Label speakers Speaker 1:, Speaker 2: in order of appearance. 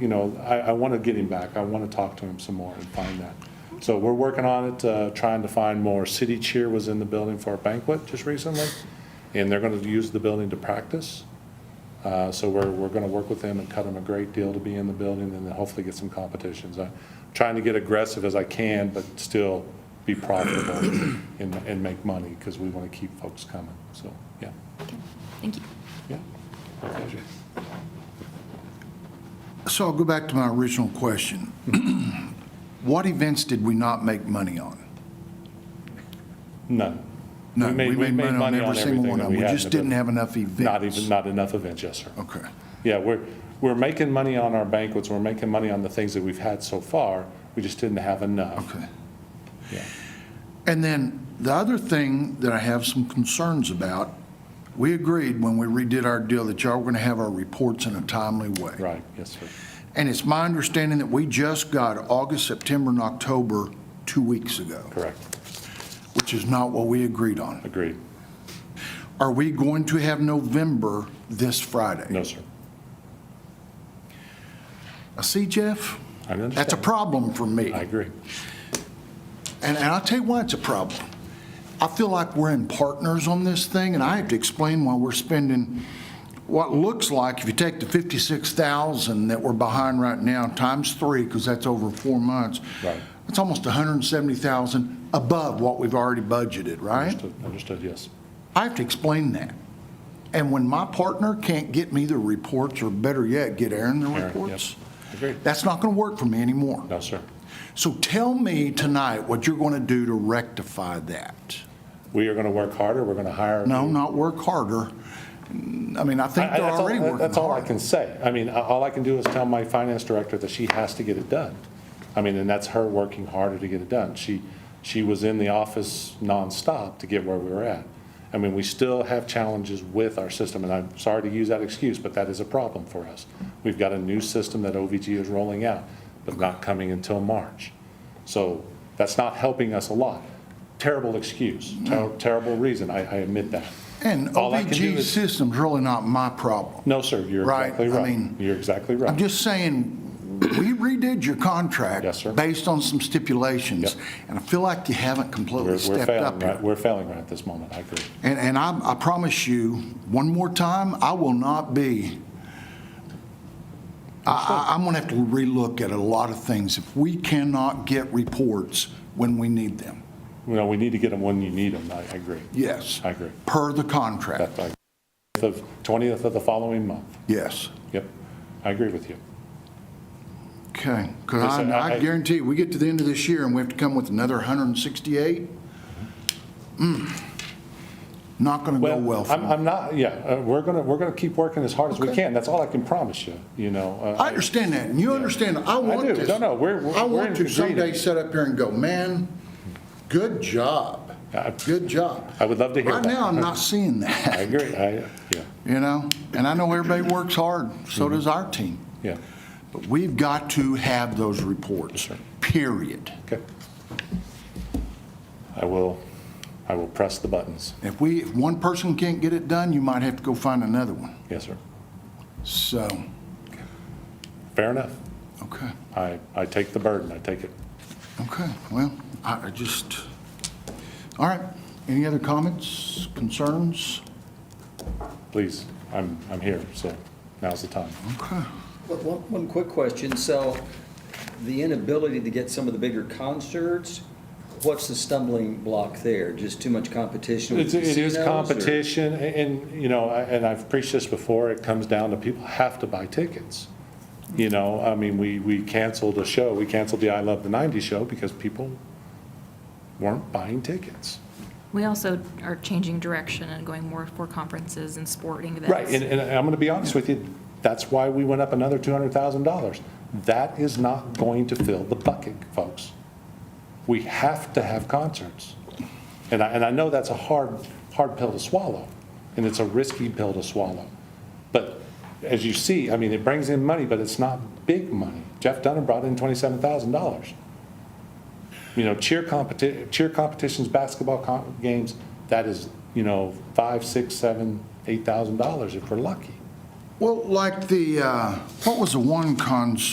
Speaker 1: you know, I, I want to get him back. I want to talk to him some more and find that. So we're working on it, uh, trying to find more. City Cheer was in the building for a banquet just recently, and they're going to use the building to practice. Uh, So we're, we're going to work with them and cut them a great deal to be in the building and then hopefully get some competitions. I'm trying to get aggressive as I can, but still be profitable and, and make money because we want to keep folks coming. So, yeah,
Speaker 2: Thank you.
Speaker 1: yeah. My pleasure.
Speaker 3: So I'll go back to my original question. What events did we not make money on?
Speaker 1: None.
Speaker 3: No,
Speaker 1: made- we made money on
Speaker 3: every single
Speaker 1: everything
Speaker 3: one
Speaker 1: that
Speaker 3: of them.
Speaker 1: we
Speaker 3: We
Speaker 1: had in
Speaker 3: just
Speaker 1: the
Speaker 3: didn't have enough events. Oh.
Speaker 1: Not even, not enough events, yes, sir.
Speaker 3: Okay.
Speaker 1: Yeah, we're, we're making money on our banquets, we're making money on the things that we've had so far, we just didn't have enough.
Speaker 3: Okay.
Speaker 1: Yeah.
Speaker 3: And then the other thing that I have some concerns about, we agreed when we redid our deal that y'all were going to have our reports in a timely way.
Speaker 1: Right, yes, sir.
Speaker 3: And it's my understanding that we just got August, September, and October two weeks ago,
Speaker 1: Correct,
Speaker 3: which is not what we agreed on.
Speaker 1: agreed.
Speaker 3: Are we going to have November this Friday?
Speaker 1: No, sir.
Speaker 3: I see, Jeff.
Speaker 1: I understand.
Speaker 3: That's a problem for me.
Speaker 1: I agree.
Speaker 3: And, and I'll tell you why it's a problem. I feel like we're in partners on this thing, and I have to explain why we're spending what looks like, if you take the 56,000 that we're behind right now, times three, because that's over four months.
Speaker 1: Right.
Speaker 3: It's almost 170,000 above what we've already budgeted, right?
Speaker 1: Understood, understood, yes.
Speaker 3: I have to explain that. And when my partner can't get me the reports, or better yet, get Aaron the
Speaker 1: Aaron, yep.
Speaker 3: reports,
Speaker 1: Agreed.
Speaker 3: that's not going to work for me anymore.
Speaker 1: No, sir.
Speaker 3: So tell me tonight what you're going to do to rectify that.
Speaker 1: We are gonna work harder, we're gonna hire.
Speaker 3: No, not work harder. I mean, I
Speaker 1: I-
Speaker 3: think
Speaker 1: I-
Speaker 3: they're
Speaker 1: that's all-
Speaker 3: already working hard.
Speaker 1: That's all I can say. I mean, a- all I can do is tell my finance director that she has to get it done. I mean, and that's her working harder to get it done. She, she was in the office nonstop to get where we were at. I mean, we still have challenges with our system, and I'm sorry to use that excuse, but that is a problem for us. We've got a new system that OVG is rolling out, but not coming until March. So that's not helping us a lot. Terrible excuse, ter- terrible reason, I, I admit that.
Speaker 3: And
Speaker 1: All I can do
Speaker 3: OVG
Speaker 1: is-
Speaker 3: system's really not my problem.
Speaker 1: No, sir, you're
Speaker 3: Right,
Speaker 1: exactly
Speaker 3: I
Speaker 1: right.
Speaker 3: mean,
Speaker 1: You're exactly right.
Speaker 3: I'm just saying, we redid your contract.
Speaker 1: Yes, sir.
Speaker 3: Based on some stipulations.
Speaker 1: Yep.
Speaker 3: And I feel like you haven't
Speaker 1: We're
Speaker 3: completely
Speaker 1: we're
Speaker 3: stepped
Speaker 1: failing,
Speaker 3: up
Speaker 1: right,
Speaker 3: here.
Speaker 1: we're failing right at this moment, I agree.
Speaker 3: And, and I, I promise you, one more time, I will not be, I, I- I'm going to have to relook at a lot of things if we cannot get reports when we need them.
Speaker 1: You know, we need to get them when you need them, I I agree.
Speaker 3: Yes.
Speaker 1: I agree.
Speaker 3: Per the contract,
Speaker 1: That, I, the 20th of the following month,
Speaker 3: yes.
Speaker 1: yep, I agree with you.
Speaker 3: Okay,
Speaker 1: Yes,
Speaker 3: because
Speaker 1: sir, I-
Speaker 3: I
Speaker 1: I-
Speaker 3: guarantee, you, we get to the end of this year and we have to come with another 168? Hmm. Not going to go well for
Speaker 1: I'm,
Speaker 3: me.
Speaker 1: I'm not, yeah, uh, we're gonna, we're gonna keep working as hard as we
Speaker 3: Okay.
Speaker 1: can, that's all I can promise you, you know. uh,
Speaker 3: I understand that, and you understand, I want
Speaker 1: do.
Speaker 3: this.
Speaker 1: No, no, we're- we're-
Speaker 3: I
Speaker 1: we're in
Speaker 3: want to someday
Speaker 1: agreement.
Speaker 3: sit up here and go, man, good job,
Speaker 1: I-
Speaker 3: good job.
Speaker 1: I would love to hear
Speaker 3: Right
Speaker 1: that.
Speaker 3: now, I'm not seeing
Speaker 1: I
Speaker 3: that,
Speaker 1: agree, I, yeah,
Speaker 3: you know? And I know everybody works hard, so
Speaker 1: Mm-hmm.
Speaker 3: does our team.
Speaker 1: yeah,
Speaker 3: But we've got to have those reports, period.
Speaker 1: okay. I will, I will press the buttons,
Speaker 3: If we, if one person can't get it done, you might have to go find another one.
Speaker 1: yes, sir.
Speaker 3: So,
Speaker 1: Fair enough,
Speaker 3: okay,
Speaker 1: I, I take the burden, I take it.
Speaker 3: okay, well, I I just, all right. Any other comments, concerns?
Speaker 1: Please, I'm, I'm here, so now's the time.
Speaker 3: Okay.
Speaker 4: But One, one quick question, so the inability to get some of the bigger concerts, what's the stumbling block there? Just too much competition with
Speaker 1: It's- It is
Speaker 4: casinos, or-
Speaker 1: competition, a- and, you know, I- and I've preached this before, it comes down to people have to buy tickets. You know, I mean, we, we canceled a show, we canceled the I Love the 90s show because people weren't buying tickets.
Speaker 2: We also are changing direction and going more for conferences and sporting events.
Speaker 1: Right, and, and I'm going to be honest with you, that's why we went up another $200,000. That is not going to fill the bucket, folks. We have to have concerts. And I, and I know that's a hard, hard pill to swallow, and it's a risky pill to swallow. But as you see, I mean, it brings in money, but it's not big money. Jeff Dunham brought in $27,000. You know, cheer competi, cheer competitions, basketball com- games, that is, you know, five, six, seven, eight thousand dollars if we're lucky.
Speaker 3: Well, like the, uh, what was the one concert?